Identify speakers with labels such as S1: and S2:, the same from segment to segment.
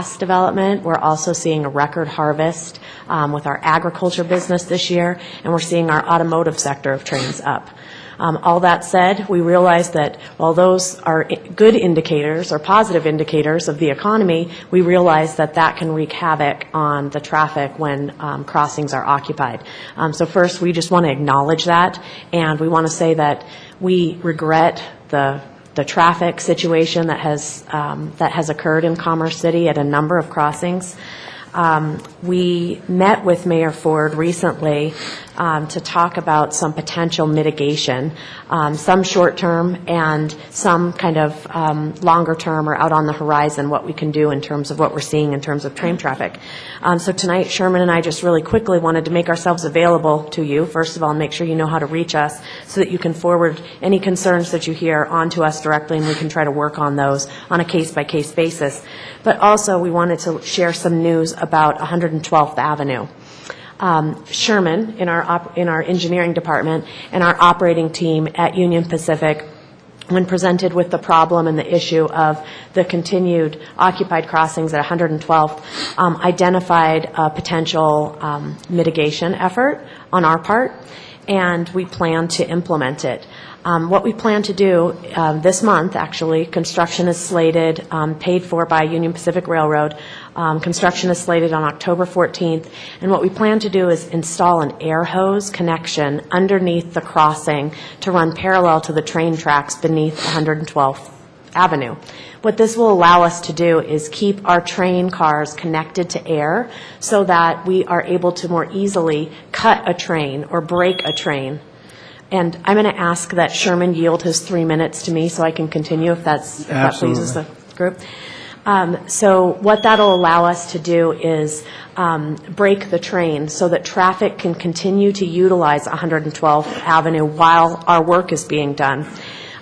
S1: Cost development, we're also seeing a record harvest um, with our agriculture business this year, and we're seeing our automotive sector of trains up. Um, All that said, we realize that while those are i- good indicators or positive indicators of the economy, we realize that that can wreak havoc on the traffic when um, crossings are occupied. Um, So first, we just want to acknowledge that, and we want to say that we regret the the traffic situation that has, um, that has occurred in Commerce City at a number of crossings. Um, We met with Mayor Ford recently um, to talk about some potential mitigation, um, some short-term and some kind of um, longer-term or out on the horizon, what we can do in terms of what we're seeing in terms of train traffic. Um, So tonight, Sherman and I just really quickly wanted to make ourselves available to you, first of all, and make sure you know how to reach us, so that you can forward any concerns that you hear onto us directly, and we can try to work on those on a case-by-case basis. But also, we wanted to share some news about 112th Avenue. Um, Sherman, in our, op- in our engineering department, and our operating team at Union Pacific when presented with the problem and the issue of the continued occupied crossings at 112th, um, identified a potential um, mitigation effort on our part, and we plan to implement it. Um, What we plan to do um, this month, actually, construction is slated, um, paid for by Union Pacific Railroad. Um, Construction is slated on October 14th, and what we plan to do is install an air hose connection underneath the crossing to run parallel to the train tracks beneath 112th Avenue. What this will allow us to do is keep our train cars connected to air so that we are able to more easily cut a train or break a train. And I'm going to ask that Sherman yield his three minutes to me so I can continue if that's, if that pleases the group. Um, So what that'll allow us to do is um, break the train so that traffic can continue to utilize 112th Avenue while our work is being done.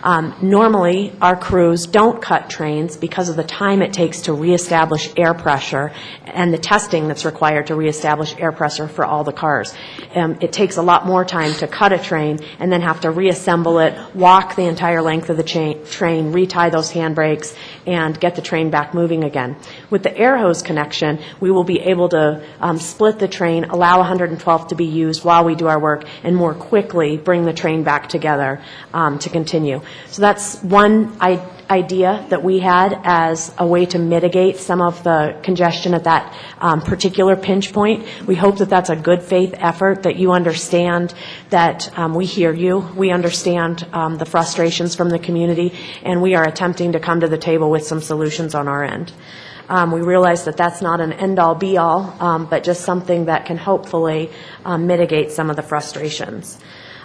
S1: Um, Normally, our crews don't cut trains because of the time it takes to reestablish air pressure and the testing that's required to reestablish air pressure for all the cars. Um, It takes a lot more time to cut a train and then have to reassemble it, walk the entire length of the cha- train, retie those handbrakes, and get the train back moving again. With the air hose connection, we will be able to um, split the train, allow 112 to be used while we do our work, and more quickly bring the train back together um, to continue. So that's one i- idea that we had as a way to mitigate some of the congestion at that um, particular pinch point. We hope that that's a good faith effort, that you understand that um, we hear you, we understand um, the frustrations from the community, and we are attempting to come to the table with some solutions on our end. Um, We realize that that's not an end-all, be-all, um, but just something that can hopefully um, mitigate some of the frustrations.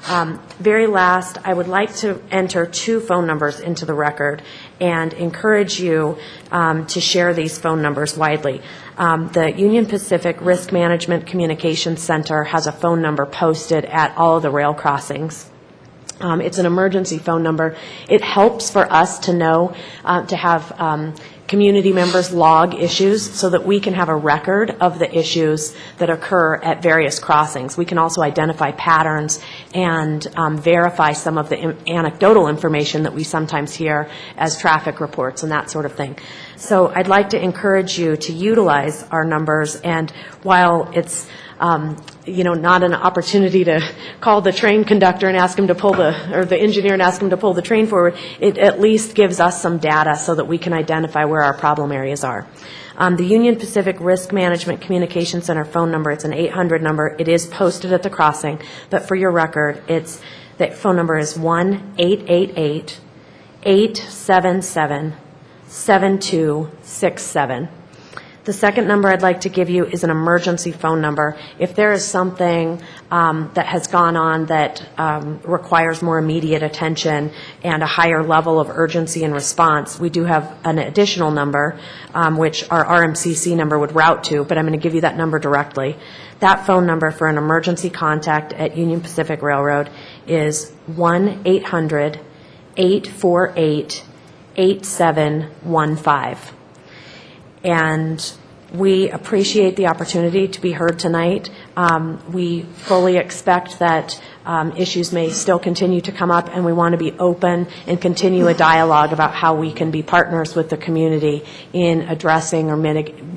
S1: Um, Very last, I would like to enter two phone numbers into the record and encourage you um, to share these phone numbers widely. Um, The Union Pacific Risk Management Communications Center has a phone number posted at all of the rail crossings. Um, It's an emergency phone number. It helps for us to know, uh, to have um, community members log issues so that we can have a record of the issues that occur at various crossings. We can also identify patterns and um, verify some of the im- anecdotal information that we sometimes hear as traffic reports and that sort of thing. So I'd like to encourage you to utilize our numbers, and while it's um, you know, not an opportunity to call the train conductor and ask him to pull the, or the engineer and ask him to pull the train forward, it at least gives us some data so that we can identify where our problem areas are. Um, The Union Pacific Risk Management Communication Center phone number, it's an 800 number, it is posted at the crossing, but for your record, it's, the phone number is 1-888-877-7267. The second number I'd like to give you is an emergency phone number. If there is something um, that has gone on that um, requires more immediate attention and a higher level of urgency and response, we do have an additional number, um, which our RMCC number would route to, but I'm going to give you that number directly. That phone number for an emergency contact at Union Pacific Railroad is 1-800-848-8715 and we appreciate the opportunity to be heard tonight. Um, We fully expect that um, issues may still continue to come up, and we want to be open and continue a dialogue about how we can be partners with the community in addressing or mitig-